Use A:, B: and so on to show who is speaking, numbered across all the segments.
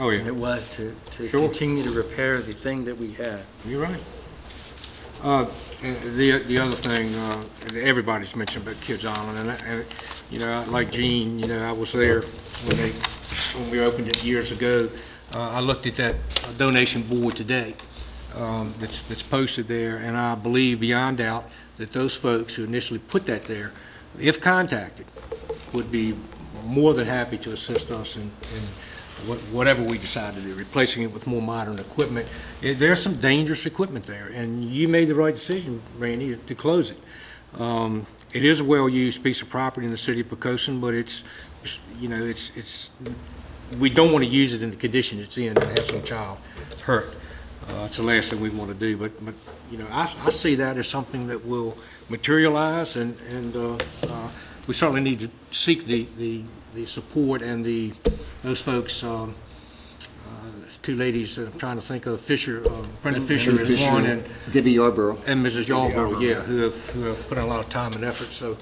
A: Oh, yeah.
B: than it was to, to
A: Sure.
B: continue to repair the thing that we had.
A: You're right. Uh, and The the other thing, uh, that everybody's mentioned about Kids Island, and, I- and, you know, like Gene, you know, I was there when they, when we opened it years ago. Uh, I looked at that donation board today um, that's that's posted there, and I believe beyond doubt that those folks who initially put that there, if contacted, would be more than happy to assist us in, in what- whatever we decide to do, replacing it with more modern equipment. Eh, There's some dangerous equipment there, and you made the right decision, Randy, to close it. Um, It is a well-used piece of property in the city of Pocosin, but it's, you know, it's, it's, we don't want to use it in the condition it's in and have some child hurt. Uh, It's the last thing we want to do, but, but, you know, I, I see that as something that will materialize, and, and uh, uh, we certainly need to seek the, the, the support and the, those folks, um, uh, there's two ladies that I'm trying to think of, Fisher, uh, Brenda Fisher is one, and,
C: Debbie Yarborough.
A: and Mrs. Yarborough, yeah, who have, who have put in a lot of time and effort, so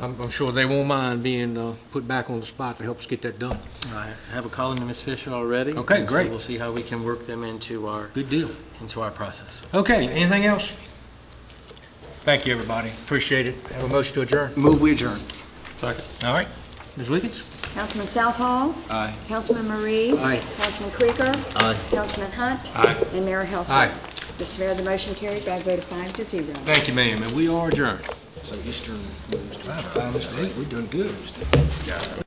A: I'm, I'm sure they won't mind being uh, put back on the spot to help us get that done.
B: I have a call into Ms. Fisher already.
A: Okay,
B: and so
A: great.
B: We'll see how we can work them into our,
A: Good deal.
B: into our process.
A: Okay, anything else? Thank you, everybody. Appreciate it. Have a motion to adjourn.
C: Move we adjourn.
A: All right. Ms. Wiggins?
D: Councilman Southall. Aye. Councilman Marie.
A: Aye.
D: Councilman Krieger.
C: Aye.
D: Councilman Hunt.
A: Aye.
D: And Mayor Helsing.
A: Aye.
D: Mr. Mayor, the motion carried by a vote of five to zero.
A: Thank you, ma'am, and we are adjourned.
C: So Eastern moves to.
A: Five, Mr. Eight, we're doing good.